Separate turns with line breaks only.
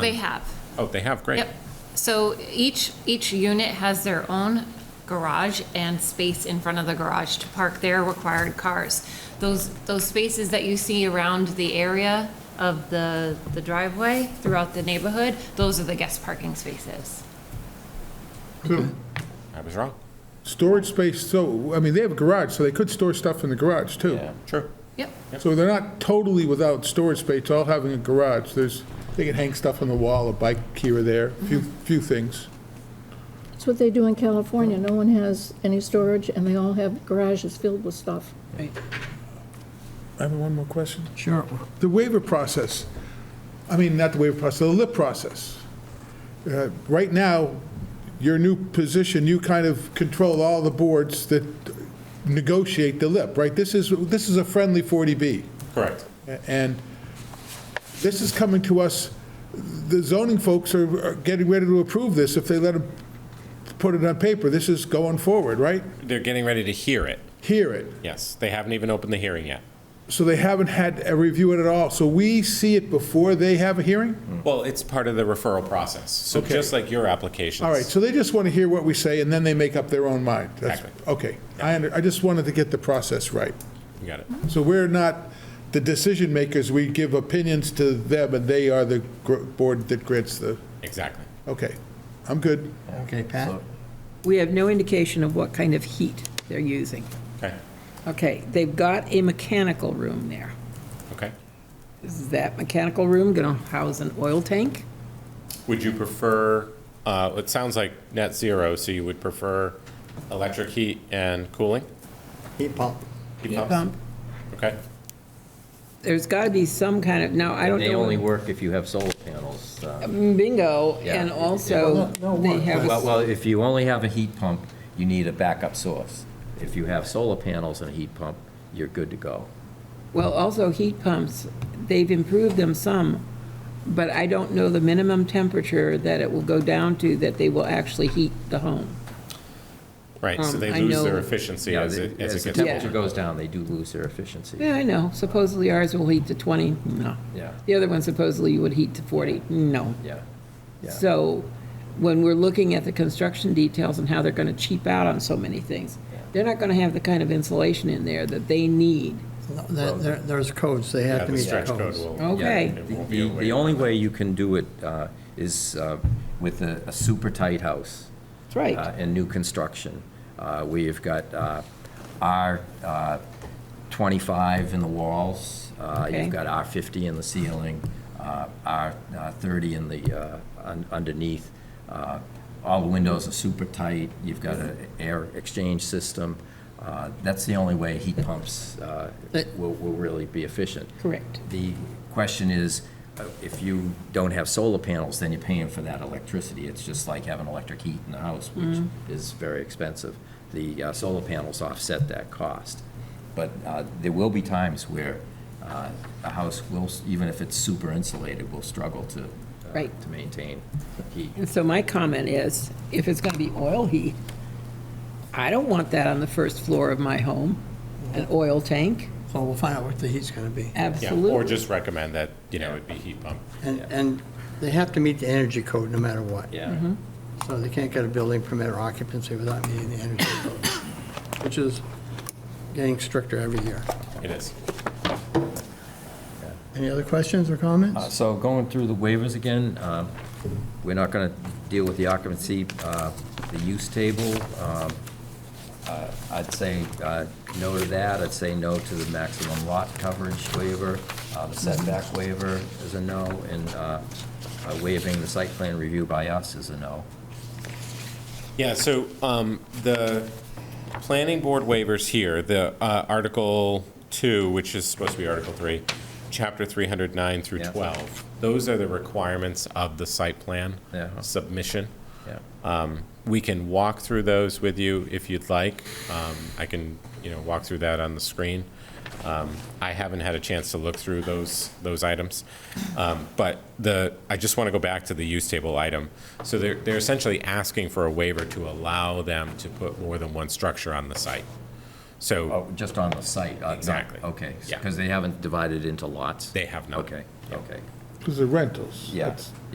They have.
Oh, they have, great.
Yep. So each, each unit has their own garage and space in front of the garage to park their required cars. Those, those spaces that you see around the area of the, the driveway throughout the neighborhood, those are the guest parking spaces.
So,
I was wrong.
Storage space, so, I mean, they have a garage, so they could store stuff in the garage, too.
True.
Yep.
So they're not totally without storage space, all having a garage. There's, they can hang stuff on the wall, a bike here or there, a few, few things.
That's what they do in California. No one has any storage, and they all have garages filled with stuff.
I have one more question.
Sure.
The waiver process, I mean, not the waiver process, the lip process. Uh, Right now, your new position, you kind of control all the boards that negotiate the lip, right? This is, this is a friendly 40B.
Correct.
And this is coming to us, the zoning folks are are getting ready to approve this if they let them put it on paper. This is going forward, right?
They're getting ready to hear it.
Hear it.
Yes, they haven't even opened the hearing yet.
So they haven't had a review at all. So we see it before they have a hearing?
Well, it's part of the referral process. So
Okay.
just like your applications.
All right, so they just want to hear what we say and then they make up their own mind. That's-
Exactly.
Okay, I, under- I just wanted to get the process right.
You got it.
So we're not the decision makers, we give opinions to them and they are the gr- board that grants the,
Exactly.
okay, I'm good.
Okay, Pat?
We have no indication of what kind of heat they're using.
Okay,
Okay, they've got a mechanical room there.
okay.
Is that mechanical room going to house an oil tank?
Would you prefer, uh, it sounds like net zero, so you would prefer electric heat and cooling?
Heat pump.
Heat pumps?
Pump?
Okay,
There's got to be some kind of, now, I don't
And they only
know. Um,
work if you have solar panels. uh,
Bingo,
Yeah.
and also they have,
Well,
a-
well, if you only have a heat pump, you need a backup source. If you have solar panels and a heat pump, you're good to go.
well, also heat pumps, they've improved them some, but I don't know the minimum temperature that it will go down to that they will actually heat the home.
right, so
Um,
they
I
lose their
know-
efficiency
Yeah,
as
they-
it, as
As the
it gets
temperature
colder.
goes down, they do lose their efficiency.
Yeah, I know, supposedly ours will heat to 20, no.
Yeah.
The other one supposedly would heat to 40, no.
Yeah, yeah.
So when we're looking at the construction details and how they're going to cheap out on so many things, they're not going to have the kind of insulation in there that they need.
There's codes, they
Yeah,
have to
the
meet the
stretch code
codes.
will.
Yeah,
Okay.
It
the-
won't be
The
a way
the
to-
only way you can do it uh, is uh, with a a super tight house.
That's right.
uh, and new construction. Uh, We've got uh, R25 in the walls, uh,
Okay.
you've got R50 in the ceiling, uh, R30 in the, uh, un- underneath. Uh, All the windows are super tight, you've got an air exchange system. Uh, That's the only way heat pumps uh,
But-
will will really be efficient.
Correct.
The question is, uh, if you don't have solar panels, then you're paying for that electricity. It's just like having electric heat in the house, which
Mm-hmm.
is very expensive. The uh, solar panels offset that cost. But uh, there will be times where uh, a house will, s- even if it's super insulated, will struggle to, uh,
Right.
to maintain heat.
And so my comment is, if it's going to be oil heat, I don't want that on the first floor of my home, an oil tank,
So we'll find out what the heat's going to be.
Yeah, or
absolutely.
just recommend that, you know, it be heat pump.
And, and they have to meet the energy code no matter what.
Yeah.
Mm-hmm.
So they can't get a building permit or occupancy without meeting the energy code, which is getting stricter every year.
It is.
Any other questions or
Uh,
comments?
So going through the waivers again, um, we're not going to deal with the occupancy, uh, the use table. um, uh, I'd say uh, no to that. I'd say no to the maximum lot coverage waiver. Uh, The setback waiver is a no, and uh, uh, waiving the site plan review by us is a no.
Yeah, so um, the planning board waivers here, the uh, Article 2, which is supposed to be Article 3, Chapter 309 through
Yeah.
12, those are the requirements of the site plan
Yeah.
submission.
Yeah.
We can walk through those with you if you'd like. Um, I can, you know, walk through that on the screen. Um, I haven't had a chance to look through those, those items. Um, But the, I just want to go back to the use table item. So they're, they're essentially asking for a waiver to allow them to put more than one structure on the site. So
Oh, just on the site? uh, not-
Exactly.
Okay,
Yeah.
because they haven't divided into lots?
they have not.
Okay, okay,
Because they're rentals.
yeah.
That's-